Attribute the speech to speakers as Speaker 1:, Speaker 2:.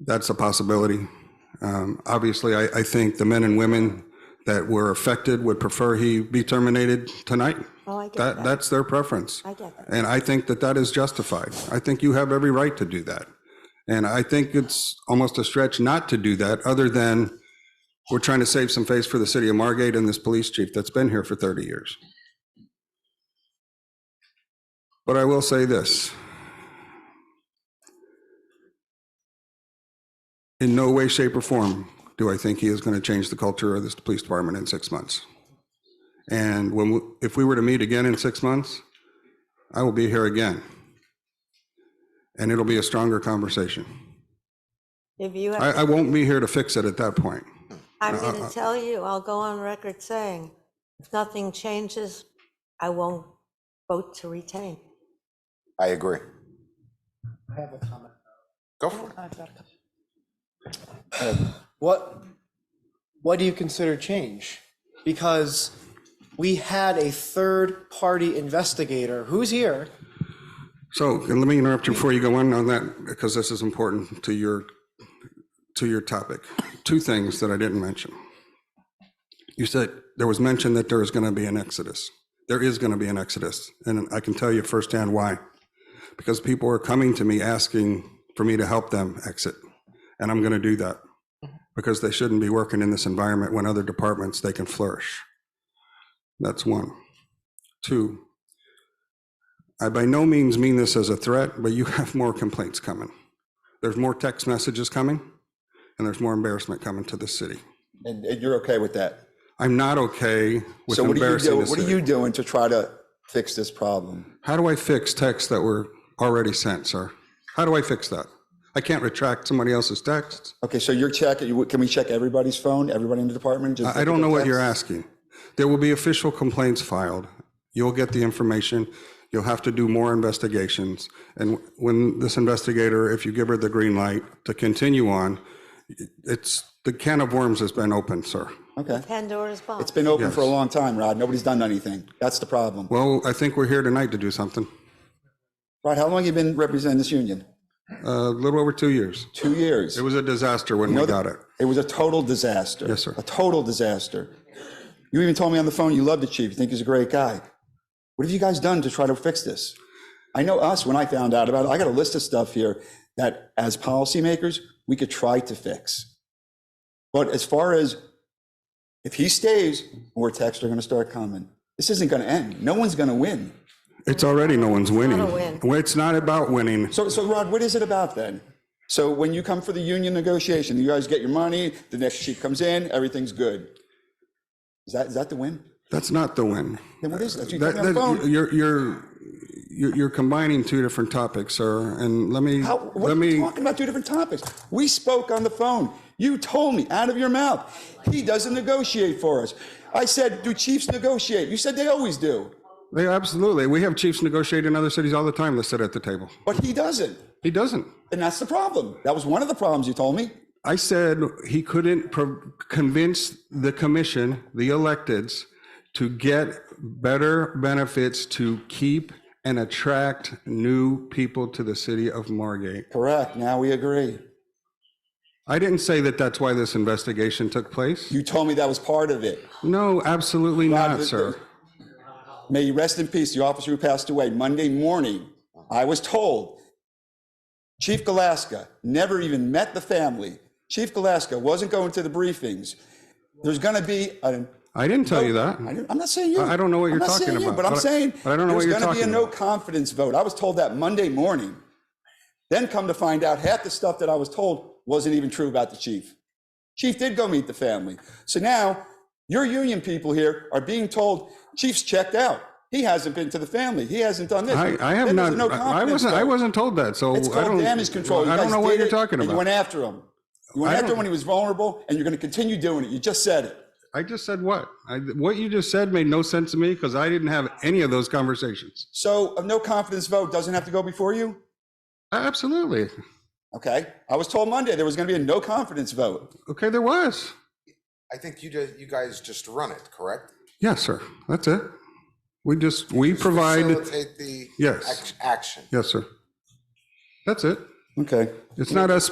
Speaker 1: That's a possibility. Um, Obviously, I, I think the men and women that were affected would prefer he be terminated tonight.
Speaker 2: Oh, I get
Speaker 1: That,
Speaker 2: that.
Speaker 1: that's their preference.
Speaker 2: I get that.
Speaker 1: And I think that that is justified. I think you have every right to do that. And I think it's almost a stretch not to do that, other than we're trying to save some face for the city of Margate and this police chief that's been here for 30 years. But I will say this. In no way, shape, or form do I think he is going to change the culture of this police department in six months. And when, we- if we were to meet again in six months, I will be here again. And it'll be a stronger conversation.
Speaker 2: If you
Speaker 1: I,
Speaker 2: have,
Speaker 1: I won't be here to fix it at that point.
Speaker 2: I'm going to tell you, I'll go on record saying, if nothing changes, I won't vote to retain.
Speaker 3: I agree. I have a comment. Go for it.
Speaker 4: what what do you consider change because we had a third party investigator who's here
Speaker 1: So and let me interrupt you before you go on on that, because this is important to your, to your topic. Two things that I didn't mention. You said, there was mention that there is going to be an exodus. There is going to be an exodus, and I can tell you firsthand why. Because people are coming to me asking for me to help them exit, and I'm going to do that. Because they shouldn't be working in this environment when other departments, they can flourish. That's one. Two, I by no means mean this as a threat, but you have more complaints coming. There's more text messages coming, and there's more embarrassment coming to the city.
Speaker 3: And, and you're okay with that?
Speaker 1: I'm not okay with
Speaker 3: So what are you
Speaker 1: embarrassing
Speaker 3: doing,
Speaker 1: the
Speaker 3: what are
Speaker 1: city.
Speaker 3: you doing to try to fix this problem?
Speaker 1: How do I fix texts that were already sent, sir? How do I fix that? I can't retract somebody else's texts.
Speaker 3: Okay, so you're checking, can we check everybody's phone, everybody in the department? Just
Speaker 1: I I
Speaker 3: look
Speaker 1: don't
Speaker 3: at
Speaker 1: know what
Speaker 3: the
Speaker 1: you're
Speaker 3: text?
Speaker 1: asking. There will be official complaints filed. You'll get the information. You'll have to do more investigations. And when this investigator, if you give her the green light to continue on, it's, the can of worms has been opened, sir.
Speaker 3: Okay.
Speaker 2: Pandora's box.
Speaker 3: It's been open for a long time, Rod. Nobody's done anything. That's the problem.
Speaker 1: Well, I think we're here tonight to do something.
Speaker 3: Rod, how long you been representing this union?
Speaker 1: A little over two years.
Speaker 3: Two years.
Speaker 1: It was a disaster when we got it.
Speaker 3: It was a total disaster.
Speaker 1: Yes, sir.
Speaker 3: A total disaster. You even told me on the phone you love the chief, you think he's a great guy. What have you guys done to try to fix this? I know us, when I found out about it, I got a list of stuff here that as policymakers, we could try to fix. But as far as if he stays, more texts are going to start coming. This isn't going to end. No one's going to win.
Speaker 1: It's already, no one's winning.
Speaker 2: not a win.
Speaker 1: Well, It's not about winning.
Speaker 3: So, so Rod, what is it about then? So when you come for the union negotiation, you guys get your money, the next chief comes in, everything's good. Is that, is that the win?
Speaker 1: That's not the win.
Speaker 3: Then what is that? You
Speaker 1: That-
Speaker 3: told me on the
Speaker 1: that-
Speaker 3: phone.
Speaker 1: You're, you're, you're you're combining two different topics, sir, and let me,
Speaker 3: How, what
Speaker 1: let
Speaker 3: are you
Speaker 1: me,
Speaker 3: talking about? Two different topics. We spoke on the phone. You told me out of your mouth, he doesn't negotiate for us. I said, do chiefs negotiate? You said they always do,
Speaker 1: they, absolutely, we have chiefs negotiate in other cities all the time that sit at the table.
Speaker 3: but he doesn't.
Speaker 1: He doesn't.
Speaker 3: And that's the problem. That was one of the problems you told me.
Speaker 1: I said he couldn't pro- convince the commission, the electeds, to get better benefits to keep and attract new people to the city of Margate.
Speaker 3: Correct. Now we agree.
Speaker 1: I didn't say that that's why this investigation took place.
Speaker 3: You told me that was part of it.
Speaker 1: No, absolutely not,
Speaker 3: the-
Speaker 1: sir.
Speaker 3: May you rest in peace, the officer who passed away Monday morning. I was told Chief Galaska never even met the family. Chief Galaska wasn't going to the briefings. There's going to be a
Speaker 1: I didn't tell you that.
Speaker 3: I didn't- I'm not saying you.
Speaker 1: I- I don't know what
Speaker 3: I'm
Speaker 1: you're
Speaker 3: not
Speaker 1: talking
Speaker 3: saying you,
Speaker 1: about,
Speaker 3: but I'm
Speaker 1: but I-
Speaker 3: saying
Speaker 1: but I don't know what
Speaker 3: there's
Speaker 1: you're
Speaker 3: going to be
Speaker 1: talking
Speaker 3: a no
Speaker 1: about.
Speaker 3: confidence vote. I was told that Monday morning. Then come to find out, half the stuff that I was told wasn't even true about the chief. Chief did go meet the family. So now your union people here are being told chief's checked out. He hasn't been to the family. He hasn't done this.
Speaker 1: I, I have
Speaker 3: Then
Speaker 1: not,
Speaker 3: there's a no
Speaker 1: I I
Speaker 3: confidence
Speaker 1: wasn't, I
Speaker 3: vote.
Speaker 1: wasn't told that, so
Speaker 3: It's
Speaker 1: I
Speaker 3: called
Speaker 1: don't.
Speaker 3: damage control. You
Speaker 1: I
Speaker 3: guys
Speaker 1: don't know
Speaker 3: did
Speaker 1: what you're
Speaker 3: it,
Speaker 1: talking
Speaker 3: and You went
Speaker 1: about.
Speaker 3: after him. You went
Speaker 1: I
Speaker 3: after
Speaker 1: don't-
Speaker 3: him when he was vulnerable, and you're going to continue doing it. You just said it.
Speaker 1: I just said what? I, what you just said made no sense to me because I didn't have any of those conversations.
Speaker 3: So a no confidence vote doesn't have to go before you?
Speaker 1: Absolutely.
Speaker 3: Okay. I was told Monday there was going to be a no confidence vote.
Speaker 1: Okay, there was.
Speaker 5: I think you just, you guys just run it, correct?
Speaker 1: Yes, sir. That's it. We just, we provide,
Speaker 5: Facilitate the
Speaker 1: Yes.
Speaker 5: ac- action.
Speaker 1: yes, sir. That's it.
Speaker 3: Okay.
Speaker 1: It's not us